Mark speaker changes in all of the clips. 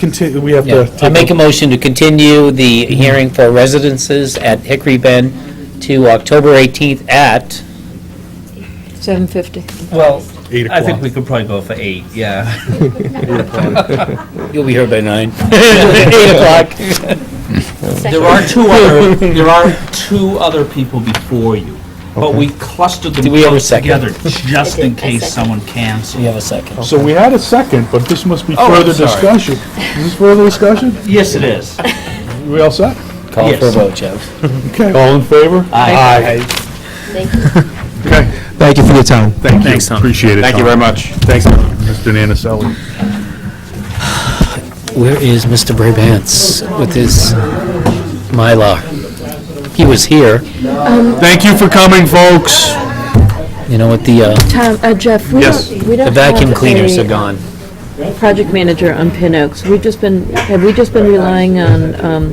Speaker 1: Continue, we have
Speaker 2: Yeah.
Speaker 1: to.
Speaker 2: I
Speaker 1: take
Speaker 2: make a motion to continue the hearing for residences at Hickory Bend to October 18th at,
Speaker 3: 7:50.
Speaker 4: Well,
Speaker 1: Eight
Speaker 4: I think
Speaker 1: o'clock.
Speaker 4: we could probably go for eight, yeah.
Speaker 2: you'll be here by nine. 8 o'clock.
Speaker 4: There are two other, there are two other people before you, but we clustered them
Speaker 2: Do we have a
Speaker 4: close
Speaker 2: second?
Speaker 4: together just in
Speaker 3: I
Speaker 4: case
Speaker 3: second.
Speaker 4: someone
Speaker 2: We
Speaker 4: cancels.
Speaker 2: have a second.
Speaker 1: So we had a second, but this must be
Speaker 4: Oh, I'm
Speaker 1: further
Speaker 4: sorry.
Speaker 1: discussion. Is this further discussion?
Speaker 4: Yes, it is.
Speaker 1: We all set?
Speaker 2: Call for a
Speaker 4: Yes.
Speaker 2: vote, Jeff.
Speaker 1: Okay, all in favor?
Speaker 4: Aye.
Speaker 3: Thank you.
Speaker 1: Okay,
Speaker 5: Thank you for your time.
Speaker 1: thank you.
Speaker 2: Thanks, Tom.
Speaker 1: Appreciate it,
Speaker 6: Thank you very much.
Speaker 1: Thanks, Mr. Nanaselli.
Speaker 2: Where is Mr. Brabants with his Mylar? He was here,
Speaker 1: Thank you for coming, folks.
Speaker 2: you know, with the, uh,
Speaker 3: Tom, uh, Jeff, we
Speaker 1: Yes.
Speaker 3: don't, we
Speaker 2: the
Speaker 3: don't
Speaker 2: vacuum
Speaker 3: have
Speaker 2: cleaners
Speaker 3: a
Speaker 2: are gone.
Speaker 3: project manager on Pin Oaks. We've just been, have we just been relying on um,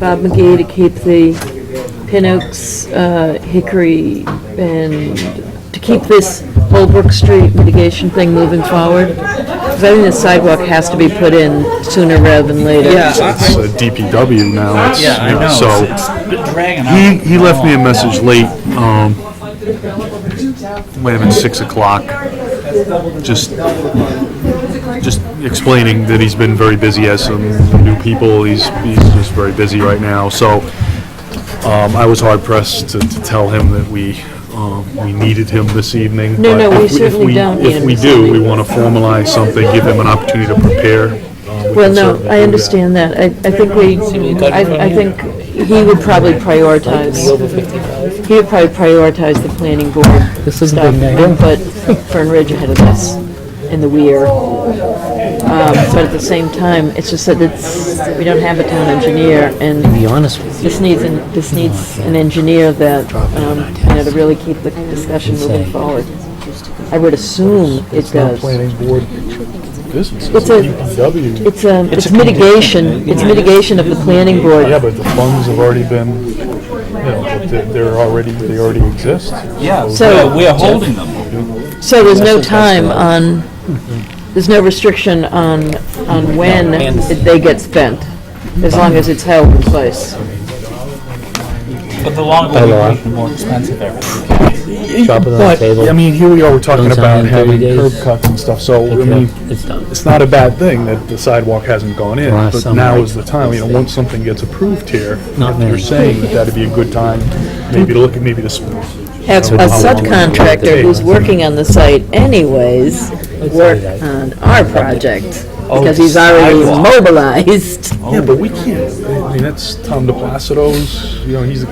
Speaker 3: Bob McGee to keep the Pin Oaks, uh, Hickory, and to keep this Holbrook Street mitigation thing moving forward? Because I think the sidewalk has to be put in sooner rather than later.
Speaker 1: It's uh, DPW now, it's,
Speaker 4: Yeah, I know,
Speaker 1: so.
Speaker 4: It's- it's been dragging on.
Speaker 1: He, he left me a message late, um, might have been six o'clock, just, just explaining that he's been very busy, has some new people, he's, he's just very busy right now, so, um, I was hard pressed to, to tell him that we, um, we needed him this evening.
Speaker 3: No,
Speaker 1: but
Speaker 3: no,
Speaker 1: if
Speaker 3: we
Speaker 1: if
Speaker 3: certainly
Speaker 1: we-
Speaker 3: don't need
Speaker 1: If
Speaker 3: him
Speaker 1: we
Speaker 3: this
Speaker 1: do, we
Speaker 3: evening.
Speaker 1: wanna formalize something, give him an opportunity to prepare. Um, we
Speaker 3: Well,
Speaker 1: can
Speaker 3: no,
Speaker 1: certainly do
Speaker 3: I
Speaker 1: that.
Speaker 3: understand that. I, I think we, I, I think he would probably prioritize, he would probably prioritize the planning board
Speaker 2: This is a
Speaker 3: stuff
Speaker 2: big night.
Speaker 3: and put Fern Ridge ahead of this and the Weir. Um, but at the same time, it's just that it's, we don't have a town engineer and
Speaker 2: To be honest with you,
Speaker 3: this needs, an this needs an engineer that, um, you know, to really keep the discussion moving forward. I would assume it does.
Speaker 1: planning board business,
Speaker 3: It's a-
Speaker 1: DPW.
Speaker 3: It's, um, it's mitigation, it's mitigation of the planning board.
Speaker 1: Yeah, but the funds have already been, you know, they're- they're already, they already exist.
Speaker 4: Yeah,
Speaker 3: So-
Speaker 4: we're- we're holding them.
Speaker 3: So there's no time on, there's no restriction on, on when it- they get spent, as long as it's held in place.
Speaker 4: But the longer we wait, the more expensive everything.
Speaker 2: Drop it on the
Speaker 1: But,
Speaker 2: table.
Speaker 1: I mean, here we are, we're talking
Speaker 2: Don't sign
Speaker 1: about
Speaker 2: in 30
Speaker 1: having curb
Speaker 2: days.
Speaker 1: cuts and stuff, so, I mean,
Speaker 2: it's done.
Speaker 1: it's not a bad thing that the sidewalk hasn't gone in,
Speaker 2: Last
Speaker 1: but
Speaker 2: summer,
Speaker 1: now
Speaker 2: I-
Speaker 1: is the time, you know, once something gets approved here,
Speaker 2: Not
Speaker 1: you're
Speaker 2: many.
Speaker 1: saying that that'd be a good time, maybe to look at, maybe to, sp-
Speaker 3: Have a subcontractor who's working on the site anyways, work on our project, because he's already mobilized.
Speaker 1: yeah, but we can't, I mean, that's Tom DePlacido's, you know, he's,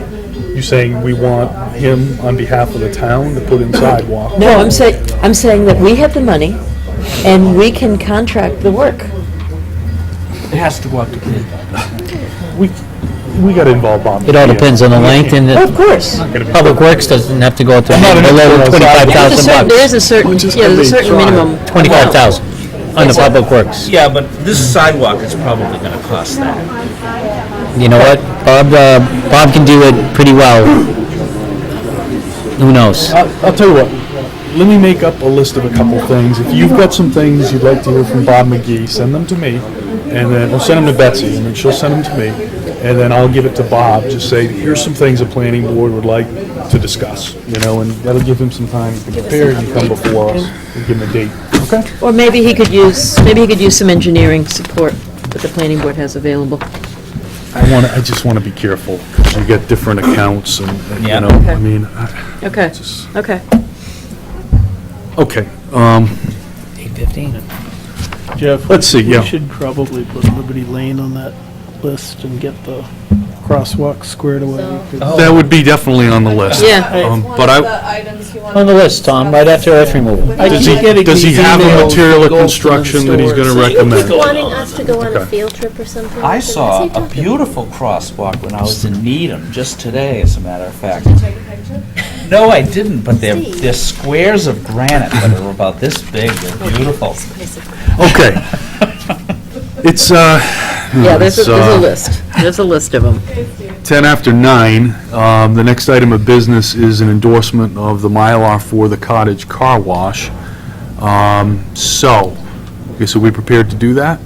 Speaker 1: you saying we want him on behalf of the town to put in sidewalk.
Speaker 3: No, I'm saying, I'm saying that we have the money, and we can contract the work.
Speaker 4: It has to go up to bid.
Speaker 1: We, we gotta involve Bob.
Speaker 2: It all
Speaker 1: McGee.
Speaker 2: depends on the length and
Speaker 3: Of
Speaker 2: the
Speaker 3: course.
Speaker 1: Not gonna be-
Speaker 2: Public Works doesn't have to go up to
Speaker 1: not an
Speaker 2: below
Speaker 1: expert on sidewalks.
Speaker 2: 25,000
Speaker 3: There's a certain, there
Speaker 2: bucks.
Speaker 3: is a certain,
Speaker 1: Which is
Speaker 3: yeah,
Speaker 1: gonna be
Speaker 3: there's a certain
Speaker 1: trial.
Speaker 3: minimum. amount.
Speaker 2: 25,000 on the Public Works.
Speaker 4: Yeah, but this sidewalk is probably gonna cost that.
Speaker 2: You know what? Bob, uh, Bob can do it pretty well. Who knows?
Speaker 1: I'll, I'll tell you what, let me make up a list of a couple things. If you've got some things you'd like to hear from Bob McGee, send them to me, and then, or send them to Betsy, and then she'll send them to me, and then I'll give it to Bob, just say, here's some things the planning board would like to discuss, you know, and that'll give him some time to prepare and come before us, and give him a date, okay?
Speaker 3: Or maybe he could use, maybe he could use some engineering support that the planning board has available.
Speaker 1: I want, I just want to be careful, because you get different accounts and, you
Speaker 4: Yeah.
Speaker 1: know,
Speaker 3: Okay.
Speaker 1: I mean, I-
Speaker 3: Okay,
Speaker 1: just,
Speaker 3: okay.
Speaker 1: okay, um,
Speaker 2: 815.
Speaker 7: Jeff?
Speaker 1: Let's see, yeah.
Speaker 7: We should probably put Liberty Lane on that list and get the crosswalk squared away.
Speaker 1: that would be definitely on the list.
Speaker 3: Yeah.
Speaker 1: Um,
Speaker 8: One
Speaker 1: But
Speaker 8: of
Speaker 1: I,
Speaker 8: the items you wanted
Speaker 2: On the
Speaker 8: to
Speaker 2: list, Tom, right after earth removal.
Speaker 8: I
Speaker 1: Does he, does he have a material of construction that he's gonna recommend?
Speaker 9: wanting us to go on
Speaker 1: Okay.
Speaker 9: a field trip or something?
Speaker 4: I
Speaker 9: Is he
Speaker 4: saw a
Speaker 9: talking?
Speaker 4: beautiful crosswalk when I was in Needham, just today, as a matter of fact.
Speaker 8: take a picture.
Speaker 4: No, I didn't, but they're, they're squares of granite that are about this big, they're beautiful.
Speaker 1: Okay. It's, uh.
Speaker 3: Yeah, there's a,
Speaker 1: it's,
Speaker 3: there's
Speaker 1: uh,
Speaker 3: a list. There's a list of them.
Speaker 1: 10 after 9, um, the next item of business is an endorsement of the Mylar for the cottage car wash. Um, So, okay, so we prepared to do that?